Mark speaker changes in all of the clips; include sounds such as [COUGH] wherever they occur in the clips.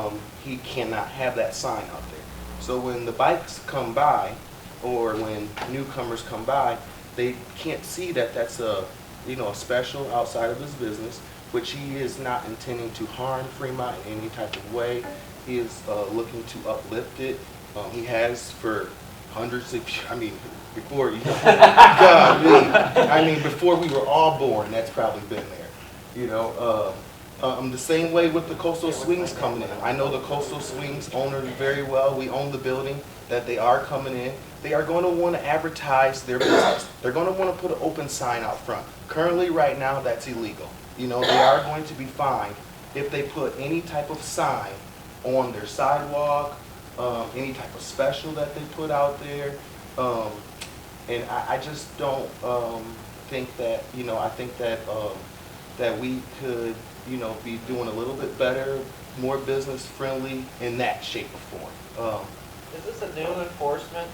Speaker 1: um, he cannot have that sign out there. So when the bikes come by, or when newcomers come by, they can't see that that's a, you know, a special outside of his business, which he is not intending to harm Fremont in any type of way. He is uh, looking to uplift it. Um, He has for hundreds of, I mean, before, [LAUGHS] you God, me. I mean, before we were all born, that's probably been there, you know? Uh, Um, the same way with the coastal swings coming in. I know the coastal swings owner very well, we own the building, that they are coming in. They are gonna wanna advertise their business. They're gonna wanna put an open sign out front. Currently, right now, that's illegal. You know, they are going to be fined if they put any type of sign on their sidewalk, um, any type of special that they put out there. Um, and I, I just don't, um, think that, you know, I think that, um, that we could, you know, be doing a little bit better, more business friendly in that shape or form. Um,
Speaker 2: Is this a new enforcement?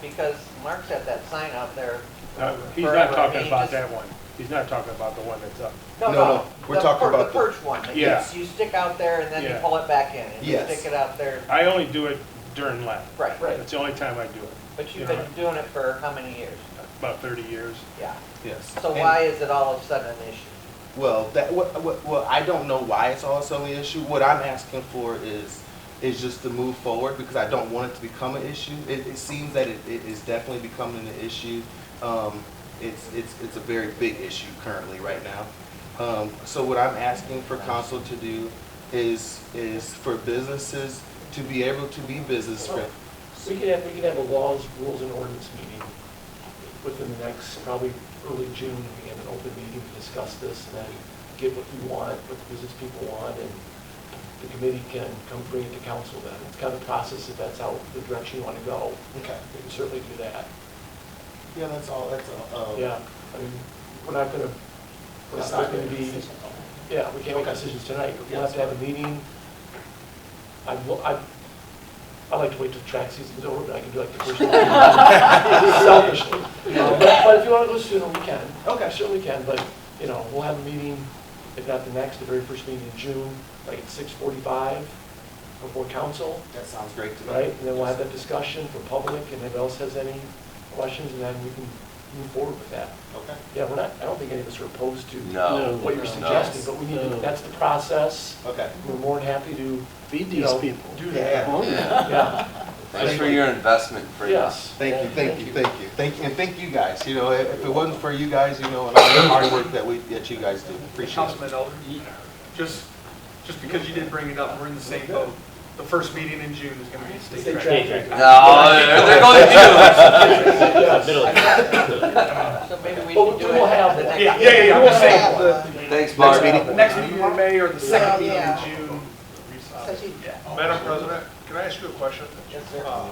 Speaker 2: Because Mark's had that sign out there.
Speaker 3: No, Uh, He's
Speaker 2: forever.
Speaker 3: not
Speaker 2: I mean,
Speaker 3: talking about
Speaker 2: just-
Speaker 3: that one. He's not talking about the one that's up.
Speaker 1: No, no, we're
Speaker 2: the
Speaker 1: talking
Speaker 2: per-
Speaker 1: about the-
Speaker 2: The perch one, that
Speaker 3: Yeah.
Speaker 2: you, you stick out there and then you
Speaker 3: Yeah.
Speaker 2: pull it back in, and you
Speaker 1: Yes.
Speaker 2: stick it out there.
Speaker 3: I only do it during lap.
Speaker 2: Right,
Speaker 3: That's the only time I do it,
Speaker 2: but you've
Speaker 3: Yeah.
Speaker 2: been doing it for how many years?
Speaker 3: about 30 years.
Speaker 2: Yeah.
Speaker 1: yes.
Speaker 2: So
Speaker 1: And-
Speaker 2: why is it all of a sudden an issue?
Speaker 1: Well, that, what, what, well, I don't know why it's also an issue. What I'm asking for is, is just to move forward because I don't want it to become an issue. It, it seems that it, it is definitely becoming an issue. Um, it's, it's, it's a very big issue currently right now. Um, so what I'm asking for council to do is, is for businesses to be able to be business friendly.
Speaker 4: We could have, we could have a laws, rules, and ordinance meeting within the next, probably early June, we have an open meeting to discuss this, and then get what you want, what the business people want, and the committee can come bring it to council then. It's kind of a process, if that's how, the direction you want to go,
Speaker 1: Okay.
Speaker 4: we can certainly do that.
Speaker 1: Yeah, that's all, that's all. uh,
Speaker 4: Yeah, I mean, we're not gonna, we're not gonna be, yeah, we can't make decisions tonight, we'll have to have a meeting. I, will- I, I like to wait till track season's over, but I can do like the [LAUGHS] first. Selfishly. you know, But but if you wanna go sooner, we can. Okay. Certainly can, but, you know, we'll have a meeting, if not the next, the very first meeting in June, like at six forty-five, before council
Speaker 1: That sounds great to me.
Speaker 4: right? And then we'll have that discussion for public, and if anybody else has any questions, and then we can move forward with that.
Speaker 1: Okay.
Speaker 4: Yeah, we're not, I don't think any of us are opposed to
Speaker 5: Oh.
Speaker 6: No.
Speaker 4: what you're
Speaker 6: No.
Speaker 4: suggesting, but we need, to- that's the process.
Speaker 1: Okay.
Speaker 4: We're more than happy to,
Speaker 3: Feed
Speaker 4: you know, do that.
Speaker 6: Yeah.
Speaker 4: [LAUGHS] Yeah,
Speaker 6: Thanks for your investment for us.
Speaker 4: yes.
Speaker 1: Thank you, thank you, thank you, thank, and thank you guys, you know, if if it wasn't for you guys, you know, and all the hard work that we, that you guys do, appreciate it.
Speaker 7: Councilman Elder, you- just, just because you didn't bring it up, we're in the same boat. The first meeting in June is gonna be state
Speaker 4: State
Speaker 7: track.
Speaker 4: traffic.
Speaker 6: No, they're going to.
Speaker 4: Yes.
Speaker 3: [LAUGHS]
Speaker 2: So maybe we
Speaker 4: Well,
Speaker 2: should do
Speaker 4: we
Speaker 2: it.
Speaker 4: will have
Speaker 2: the
Speaker 4: one.
Speaker 7: Yeah,
Speaker 2: next
Speaker 7: yeah, yeah, yeah, I'm just saying, the
Speaker 6: Thanks, Mark.
Speaker 1: meeting.
Speaker 7: next meeting in May or the second meeting in
Speaker 2: Yeah.
Speaker 7: June.
Speaker 2: So she-
Speaker 8: Madam President, can I ask you a question?
Speaker 2: Yes, sir.
Speaker 8: Uh, uh,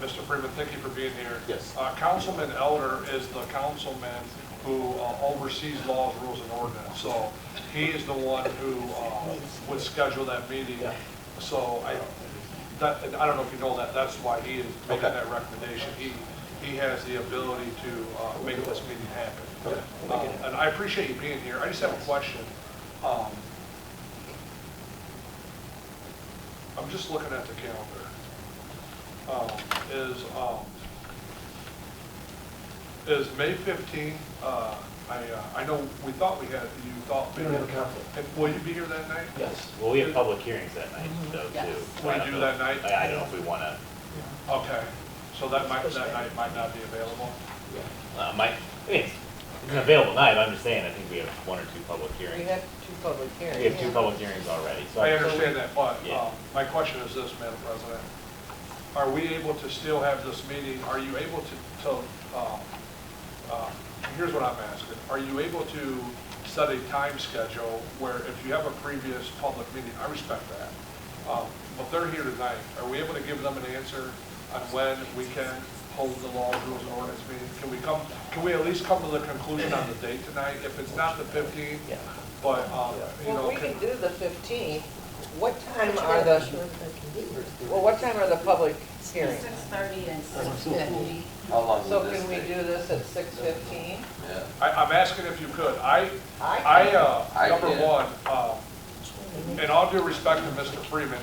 Speaker 8: Mr. Freeman, thank you for being here.
Speaker 1: Yes.
Speaker 8: Uh, Councilman Elder is the councilman who uh, oversees laws, rules, and ordinance. So he is the one who uh, would schedule that meeting.
Speaker 4: Yeah.
Speaker 8: So I, that, I don't know if you know that, that's why he is making
Speaker 1: Okay.
Speaker 8: that recommendation. He, he has the ability to uh, make this meeting happen. Uh, And I appreciate you being here. I just have a question. Um, I'm just looking at the calendar. Um, Is, um, is May 15, uh, I, uh, I know, we thought we had, you thought.
Speaker 4: We don't have a conflict.
Speaker 8: And Will you be here that night?
Speaker 4: Yes.
Speaker 5: Well, we have public hearings that night, though,
Speaker 4: Mm-hmm.
Speaker 5: too. So I
Speaker 8: We
Speaker 5: don't
Speaker 8: do
Speaker 5: know-
Speaker 8: that night?
Speaker 5: I I don't know if we want to,
Speaker 8: Okay, so that might, that night might not be available.
Speaker 5: Uh, Mike, I mean, it's it's an available night, I'm just saying, I think we have one or two public
Speaker 2: We
Speaker 5: hearings.
Speaker 2: have two public
Speaker 5: We
Speaker 2: hearings.
Speaker 5: have two public hearings already, so.
Speaker 8: I understand that, but uh,
Speaker 5: Yeah.
Speaker 8: my question is this, Madam President. Are we able to still have this meeting? Are you able to, to, uh, uh, here's what I'm asking. Are you able to set a time schedule where if you have a previous public meeting, I respect that. um, But they're here tonight. Are we able to give them an answer on when we can hold the law, rules, and ordinance meeting? Can we come, can we at least come to the conclusion on the date tonight? If it's not the 15th,
Speaker 4: Yeah.
Speaker 8: but, um, you
Speaker 2: Well,
Speaker 8: know.
Speaker 2: we
Speaker 8: can-
Speaker 2: can do the fifteenth. What time are the, well, what time are the public hearings?
Speaker 9: Six thirty and six fifty.
Speaker 6: How long
Speaker 2: So
Speaker 6: will this
Speaker 2: can we
Speaker 6: take?
Speaker 2: do this at six fifteen?
Speaker 6: Yeah.
Speaker 8: I, I'm asking if you could. I, I, uh,
Speaker 6: I
Speaker 8: number
Speaker 6: did.
Speaker 8: one, um, in all due respect to Mr. Freeman,